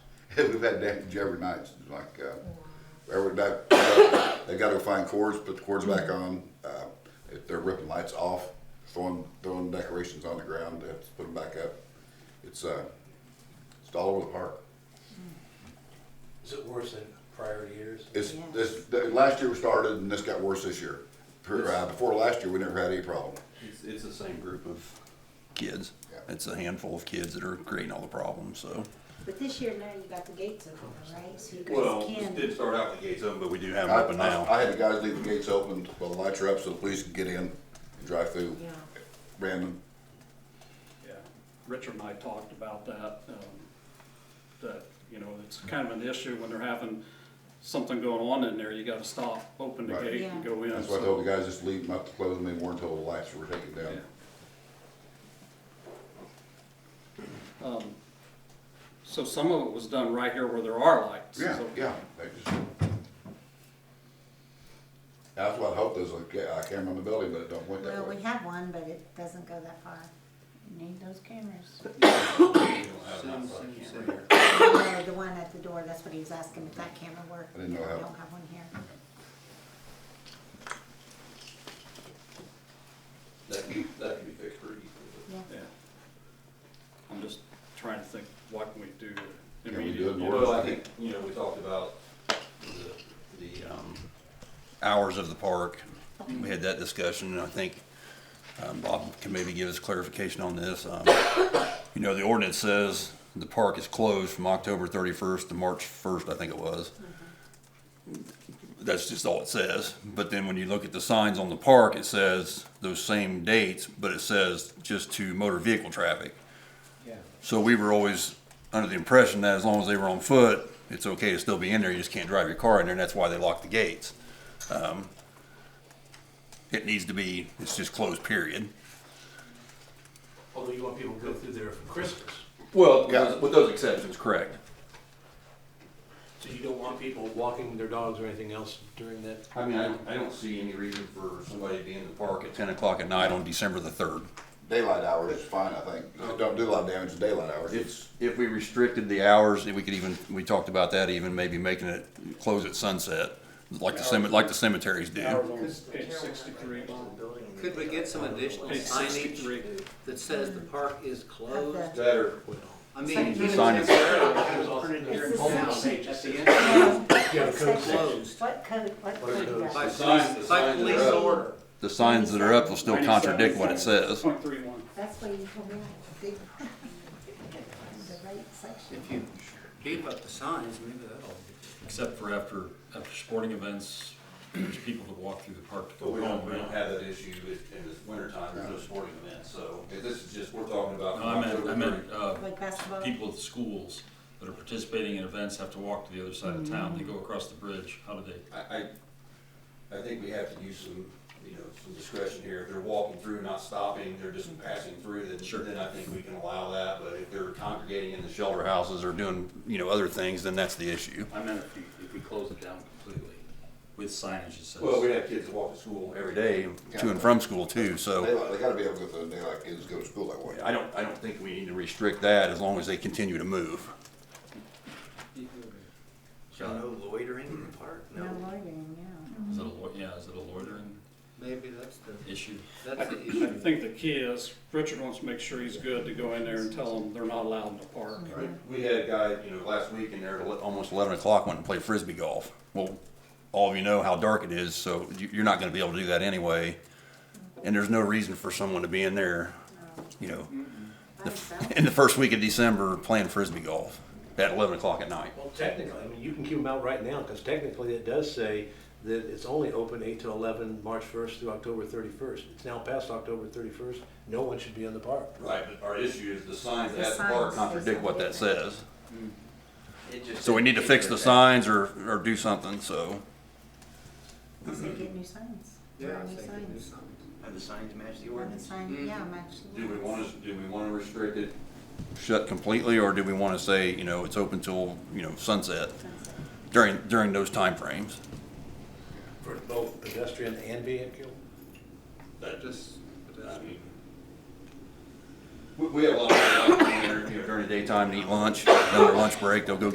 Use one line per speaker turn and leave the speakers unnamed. We've had damage every night, like, uh, every night, they gotta go find cords, put the cords back on. Uh, if they're ripping lights off, throwing, throwing decorations on the ground, they have to put them back up. It's, uh, it's all over the park.
Is it worse than prior years?
It's, this, the, last year we started and this got worse this year. Per- uh, Before last year, we never had any problem.
It's, it's the same group of kids.
Yeah.
It's a handful of kids that are creating all the problems, so.
But this year now you got the gates open, right? So you
Well,
guys
it
can.
did start out the gates open, but we do have them
I,
open
I-
now.
I had the guys leave the gates open while the lights were up so the police could get in and drive through
Yeah.
random.
Yeah, Richard and I talked about that, um, that, you know, it's kind of an issue when they're having something going on in there, you gotta stop, open the
Right.
gate and
Yeah.
go in.
That's why I
so-
told the guys just leave them up to close them anymore until the lights were taken down.
Yeah. Um, So some of it was done right here where there are lights.
Yeah,
so-
yeah, they just. That's what I hope there's a ca- a camera in the building, but it don't went that
Well,
way.
we have one, but it doesn't go that far. You need those cameras. No, The one at the door, that's what he was asking, if that camera worked.
I didn't know how-
We don't have one here.
That, that can be fixed pretty easily.
Yeah.
Yeah. I'm just trying to think, what can we do
Can we do it
immediately?
more?
Well, I think, you know, we talked about the, the, um, hours of the park. We had that discussion, and I think, um, Bob can maybe give us clarification on this. Um, You know, the ordinance says the park is closed from October thirty-first to March first, I think it was. That's just all it says. But then when you look at the signs on the park, it says those same dates, but it says just to motor vehicle traffic. So we were always under the impression that as long as they were on foot, it's okay to still be in there, you just can't drive your car in there, and that's why they locked the gates. Um, It needs to be, it's just closed, period.
Although you want people to go through there for Christmas,
Well,
yeah.
with those exceptions, correct.
so you don't want people walking their dogs or anything else during that.
I mean, I, I don't see any reason for somebody to be in the park at ten o'clock at night on December the third.
Daylight hours is fine, I think. It don't do a lot of damage in daylight hours.
It's, if we restricted the hours, we could even, we talked about that, even maybe making it close at sunset, like the cemetery, like the cemeteries do.
Hours on page sixty-three.
Could we get some additional
Page
signage
sixty-three.
that says the park is closed?
Of the-
Better.
I mean,
Signage.
It's the same.
Yeah,
closed.
What code, what
What are
code?
those?
does
by
it?
signs- the
police, by
signs are
police
up.
order.
The signs that are up will still contradict what it says.
Point three one.
That's what you told me. I did. The right section.
If you beat up the signs, maybe that'll.
Except for after, after sporting events, there's people that walk through the park to
But
go
we don't, we don't
home.
have that issue in, in the wintertime, there's no sporting events, so if this is just, we're talking about.
No, I meant, I meant, uh,
Like basketball.
people at the schools that are participating in events have to walk to the other side of town, they go across the bridge, how do they?
I, I, I think we have to use some, you know, some discretion here, if they're walking through, not stopping, they're just passing through, then, then I think we can allow that, but if they're congregating in the shelter houses or doing, you know, other things, then that's the issue.
I meant if you, if we close it down completely with signage that says.
Well, we have kids that walk to school every day, to and from school too, so.
Daylight, they gotta be able to go through daylight kids go to school that way.
I don't, I don't think we need to restrict that as long as they continue to move.
So no loitering in the park?
No loitering, yeah.
Is it a, lo- yeah, is it a loitering
Maybe that's the,
issue?
that's the
I
issue.
think the key is, Richard wants to make sure he's good to go in there and tell them they're not allowed in the park.
We had a guy, you know, last week in there at ele- almost eleven o'clock went and played frisbee golf. Well, all of you know how dark it is, so you, you're not gonna be able to do that anyway. And there's no reason for someone to be in there, you know,
By
the f-
itself.
in the first week of December playing frisbee golf at eleven o'clock at night.
Well, technically, I mean, you can keep them out right now, because technically it does say that it's only open eight to eleven, March first through October thirty-first. It's now past October thirty-first, no one should be in the park.
Right, but our issue is the signs
The signs.
contradict what that says.
It just-
So we need to fix the signs or, or do something, so.
I said get new signs.
Yeah, I
New
think they do
signs.
something. Have the signs match the
Have the
ordinance?
sign, yeah, match.
Do we want to, do we want to restrict it? Shut completely, or do we want to say, you know, it's open till, you know, sunset
Sunset.
during, during those timeframes?
For both pedestrian and vehicle.
That
Just,
I
that's-
mean, We, we have a lot of, people out there, you know, during the daytime to eat lunch, another lunch break, they'll go